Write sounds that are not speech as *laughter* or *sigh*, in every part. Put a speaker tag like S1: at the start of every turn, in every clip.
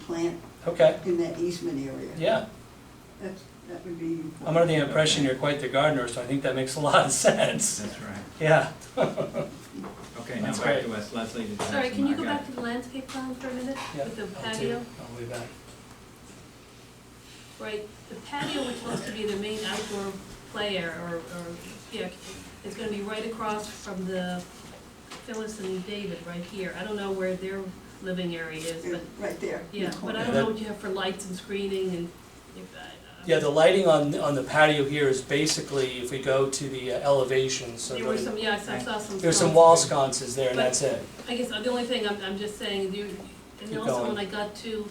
S1: plant
S2: Okay,
S1: in that easement area.
S2: yeah.
S1: That's, that would be.
S2: I'm under the impression you're quite the gardener, so I think that makes a lot of *laughs* sense.
S3: That's right.
S2: Yeah.
S3: Okay, now
S2: That's
S3: back
S2: great.
S3: to us, Leslie. did you have
S4: Sorry,
S3: some-
S4: can you
S3: I
S4: go
S3: got
S4: back to the landscape plan for a minute?
S2: Yeah,
S4: With the
S2: I'll do-
S4: patio,
S2: I'll be back.
S4: right, the patio which was to be the main outdoor play area, or, or, yeah, is gonna be right across from the Phyllis and David, right here. I don't know where their living area is,
S1: Yeah,
S4: but,
S1: Right there. in the
S4: yeah, but
S1: corner.
S4: I don't know what you have for lights and screening and if that. uh,
S2: Yeah, the lighting on, on the patio here is basically, if we go to the uh, elevation, so
S4: There were
S2: the-
S4: some, yes, I saw some.
S2: there's some
S4: signs.
S2: wall sconces there and
S4: But-
S2: that's it.
S4: I guess the only thing, I'm, I'm just saying, you, and
S2: Keep
S4: also
S2: going.
S4: when I got to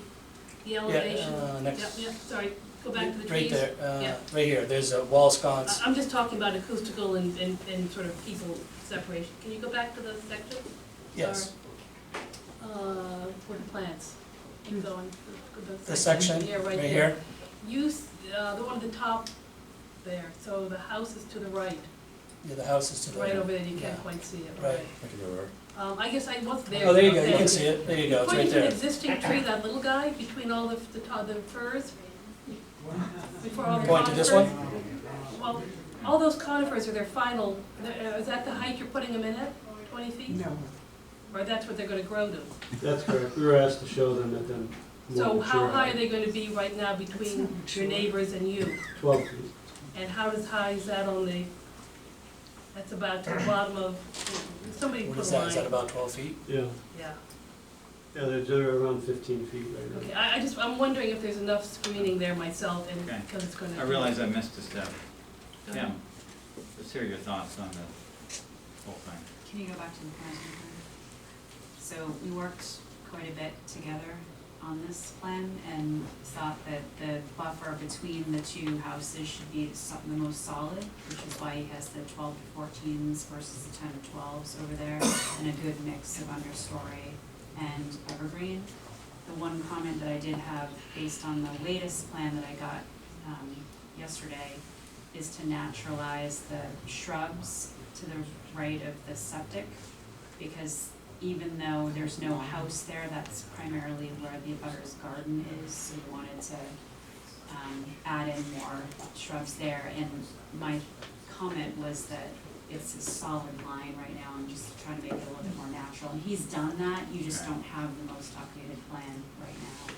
S4: the
S2: Yeah,
S4: elevation.
S2: uh,
S4: Yep,
S2: next-
S4: yep, sorry, go back to the trees.
S2: Right there, uh,
S4: Yeah.
S2: right here, there's a wall
S4: I-
S2: sconce.
S4: Uh, I'm just talking about acoustical and, and, and sort of people separation. Can you go back to those sections?
S2: Yes,
S4: Or, Uh, for the plants, keep going, go to those
S2: the
S4: sections.
S2: section,
S4: Yeah,
S2: right
S4: right
S2: here.
S4: there. Use, uh, the one at the top there, so the house is to the right,
S2: Yeah, the house is to the
S4: right
S2: right.
S4: over there, you can't
S2: Yeah.
S4: quite see it,
S2: Right.
S4: right? Um, I guess I was there.
S2: Oh, there you go,
S4: okay.
S2: you can see it, there you go, it's right
S4: Pointing to an
S2: there.
S4: existing tree, that little guy, between all the, the, to- the firs, before all the
S2: Point to this
S4: conifers.
S2: one?
S4: Well, all those conifers are their final, they're- uh, is that the height you're putting them in at, twenty feet?
S1: No,
S4: Or that's what they're gonna grow to?
S5: That's correct, we were asked to show them at them.
S4: So how high are they gonna be right now between
S1: That's not
S4: your neighbors and you?
S5: Twelve feet.
S4: And how does high is that on the, that's about to the bottom of, somebody
S2: What
S4: put
S2: is
S4: a
S2: that, is that
S4: line,
S2: about twelve feet?
S5: Yeah,
S4: yeah.
S5: yeah, they're, they're around fifteen feet right
S4: Okay,
S5: now.
S4: I, I just, I'm wondering if there's enough screening there myself and,
S3: Okay.
S4: because it's gonna.
S3: I realize I missed a step.
S4: Go ahead.
S3: Tim, let's hear your thoughts on the whole thing.
S6: Can you go back to the parenting plan? So we worked quite a bit together on this plan and thought that the buffer between the two houses should be some- the most solid, which is why he has the twelve to fourteens versus the ten to twelves over there, and a good mix of understory and evergreen. The one comment that I did have based on the latest plan that I got, um, yesterday, is to naturalize the shrubs to the right of the septic, because even though there's no house there, that's primarily where the abutter's garden is, so we wanted to um add in more shrubs there, and my comment was that it's a solid line right now, I'm just trying to make it a little bit more natural, and he's done that, you just don't have the most updated plan right now.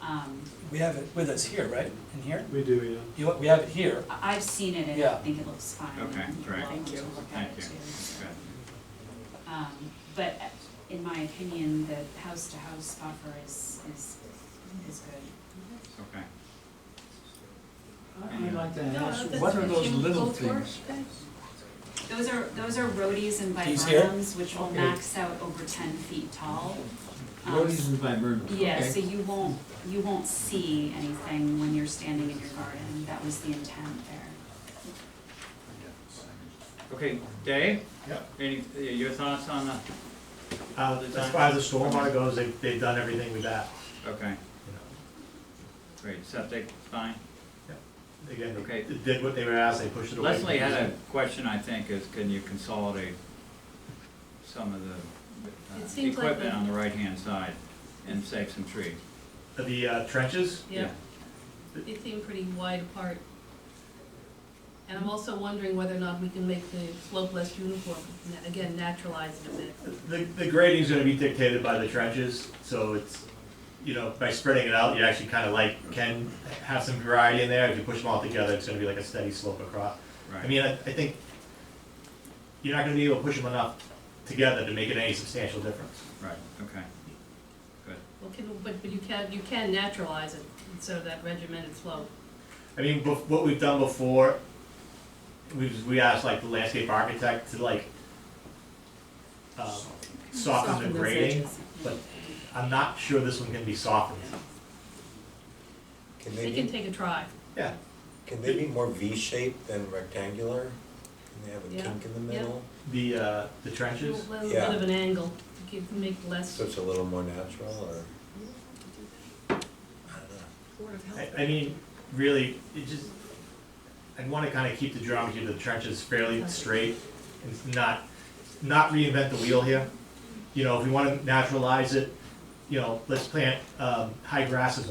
S6: Um,
S2: We have it with us here, right, in here?
S5: We do, yeah.
S2: You, we have it here.
S6: I- I've seen it and I
S2: Yeah.
S6: think it looks fine.
S3: Okay,
S6: and
S3: great.
S6: I'll
S3: Thank
S6: look at
S3: Thank
S6: it
S3: you.
S6: too.
S3: Good.
S6: Um, but in my opinion, the house-to-house buffer is, is, is good.
S3: Okay.
S7: I- I'd like to
S4: No,
S7: ask,
S4: that's
S7: what are
S4: right.
S7: those
S4: Can you
S7: little
S4: both work?
S7: things?
S6: Those are, those are roadies and
S2: These here?
S6: viburnums, which will
S2: Okay.
S6: max out over ten feet tall. Um,
S7: Roadies and viburnums,
S6: Yeah, so
S7: okay.
S6: you won't, you won't see anything when you're standing in your garden, that was the intent there.
S3: Okay, Dave?
S8: Yep.
S3: Any, uh, your thoughts on the,
S8: Uh, as far as the stormwater goes, they, they've done everything with that,
S3: okay,
S8: you know.
S3: great, septic, fine.
S8: Again,
S3: Okay.
S8: they did what they were asked, they pushed it away.
S3: Leslie had a question, I think, is can you consolidate some of the
S4: It
S3: uh,
S4: seems like
S3: equipment
S4: the-
S3: on the right-hand side and save some trees?
S8: The uh, trenches,
S4: Yeah, they seem pretty wide apart. And I'm also wondering whether or not we can make the slope less uniform, na- again, naturalize it a bit.
S8: the, the grading's gonna be dictated by the trenches, so it's, you know, by spreading it out, you actually kinda like, can have some variety in there, if you push them all together, it's gonna be like a steady slope across. I
S3: Right,
S8: mean, I, I think you're not gonna be able to push them enough together to make it any substantial difference.
S3: right, okay.
S4: Well, can, but, but you can, you can naturalize it, so that regimented slope.
S8: I mean, bef- what we've done before, we've, we asked like the landscape architect to like, um, soften
S6: Soften
S8: the
S6: those
S8: grading,
S6: edges.
S8: but I'm not sure this one can be softened.
S9: Can they
S4: They can
S9: be,
S4: take a try.
S8: Yeah,
S9: can they be more V-shaped than rectangular? Can they have
S4: Yeah,
S9: a kink in the
S4: yeah.
S9: middle?
S8: the, uh, the
S4: A
S8: trenches,
S4: little little
S9: Yeah.
S4: bit of an angle, to give, make less.
S9: So it's a little more natural or? I don't know.
S8: I, I mean, really, it just, I'd wanna kinda keep the geometry of the trenches fairly straight and not, not reinvent the wheel here. You know, if we wanna naturalize it, you know, let's plant, um, high grasses